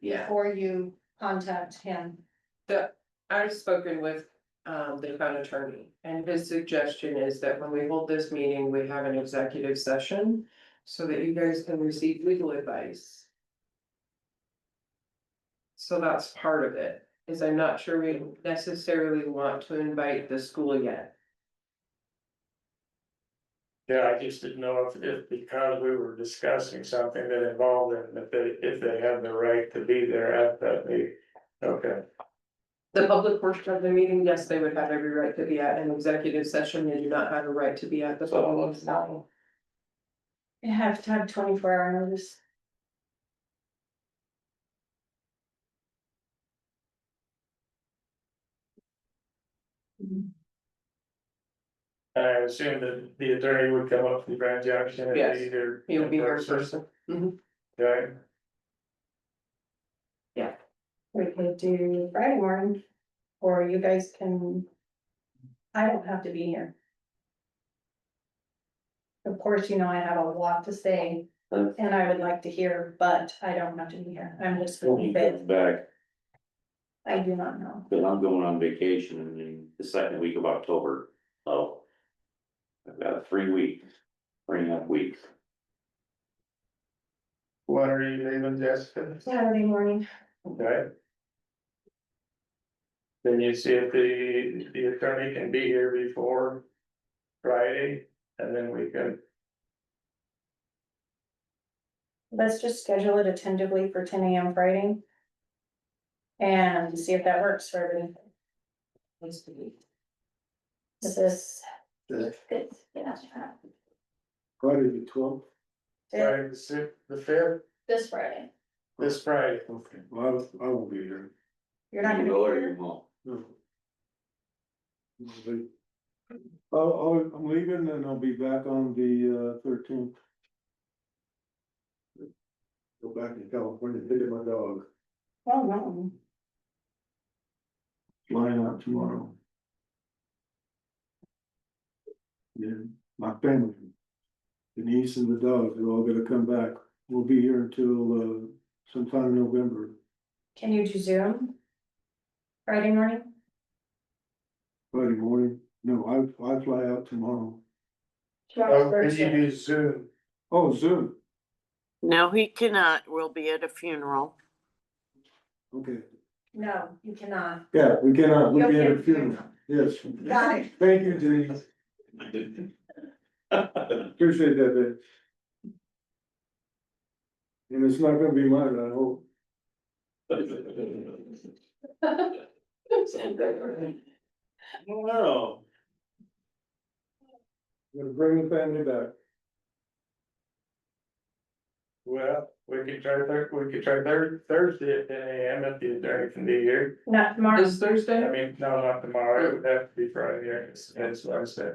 Yeah. before you contact him. I've spoken with um the town attorney and his suggestion is that when we hold this meeting, we have an executive session. So that you guys can receive legal advice. So that's part of it, is I'm not sure we necessarily want to invite the school yet. Yeah, I just didn't know if, if because we were discussing something that involved them, if they, if they had the right to be there at that meeting. Okay, The public portion of the meeting, yes, they would have every right to be at an executive session, they do not have a right to be at the. public forum. You have to have twenty-four hour notice. and I assume that the attorney would come up from Grand Junction and Yes, be either. You'll be there in in person. Right, We could do Friday morning, or you guys can. I don't have to be here. Of course, you know, I have a lot to say, and I would like to hear, but I don't have to be here, I'm just When really he bit, comes back, I do not know. because I'm going on vacation in the- the second week of October, so. I've got a three week, three and a half weeks. what are you leaving, Jessica? Saturday morning, Okay. Then you see if the, the attorney can be here before Friday, and then we can, let's just schedule it attentively for ten AM Friday. And see if that works for everyone. This is. The- Yeah. Friday the twelfth, Friday the sixth, the fifth, This Friday. this Friday. okay, well, I won't be here. You're not gonna You be will or you here, won't. No. I'll be- I'll, I'll- I'm leaving and I'll be back on the uh, thirteenth. Go back to California, pick up my dog, oh, no. flying out tomorrow. Yeah, my family. Denise and the dog, they're all gonna come back, we'll be here until uh sometime in November, Can you do Zoom? Friday morning? Friday morning, no, I, I fly out tomorrow. Oh, and you do Zoom. Oh, Zoom, No, he cannot. We'll be at a funeral. okay. No, you cannot. Yeah, we cannot, we You'll can get at a funeral, yes. Got it. Thank you, Denise, appreciate that, babe. And it's not gonna be mine, I hope. Wow. I'm gonna bring the family back. Well, we could try Thur- we could try Thur- Thursday at ten AM if the attorney can be here. Not tomorrow. This Thursday? I mean, no, not tomorrow, it would have to be Friday, it's, it's Wednesday.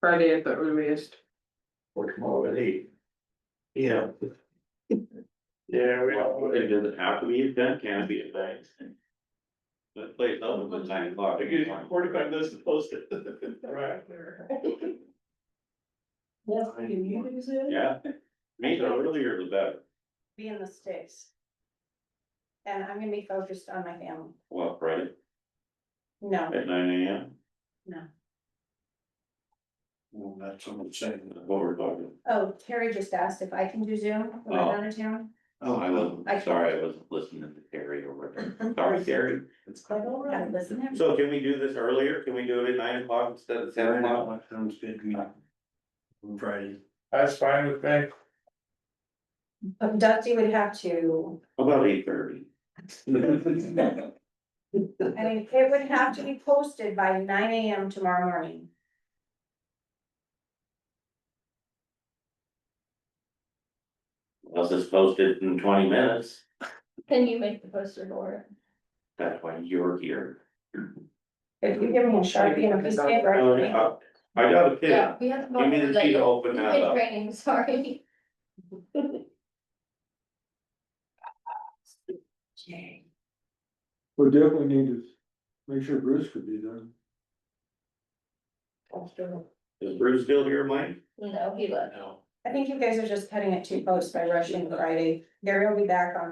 Friday at the earliest. Or tomorrow at eight. Yeah. Yeah, we Well, It don't. doesn't have to be a done, can it be a thing? But play it up with nine o'clock. Forty-five minutes to post it. Right. Yes, Yeah, me, the earlier the better, Be in the States. And I'm gonna be focused on my family. well, right, No, at nine AM. No. Well, that's what I'm saying, what we're talking. oh, Terry just asked if I can do Zoom when I'm Oh. out of town. Oh, I I- wasn't, sorry, I wasn't listening to Terry or whatever. Sorry, Terry. It's quite all right. Listen, I'm- So can we do this earlier? Can we do it at nine o'clock instead of seven o'clock? sounds good. Friday. That's fine with me. But Dusty would have to, About eight thirty. I mean, it would have to be posted by nine AM tomorrow morning. Unless it's posted in twenty minutes, Can you make the poster door? that's why you're here. If you give me a Sharpie and a piece of paper. I can make it. I Oh, I got a pin. We have. Give me the key to open that up. Training, sorry. We definitely need to make sure Bruce could be there. Is Bruce still here, Mike? No, he left. No. I think you guys are just cutting it too close by rushing Friday. Gary will be back on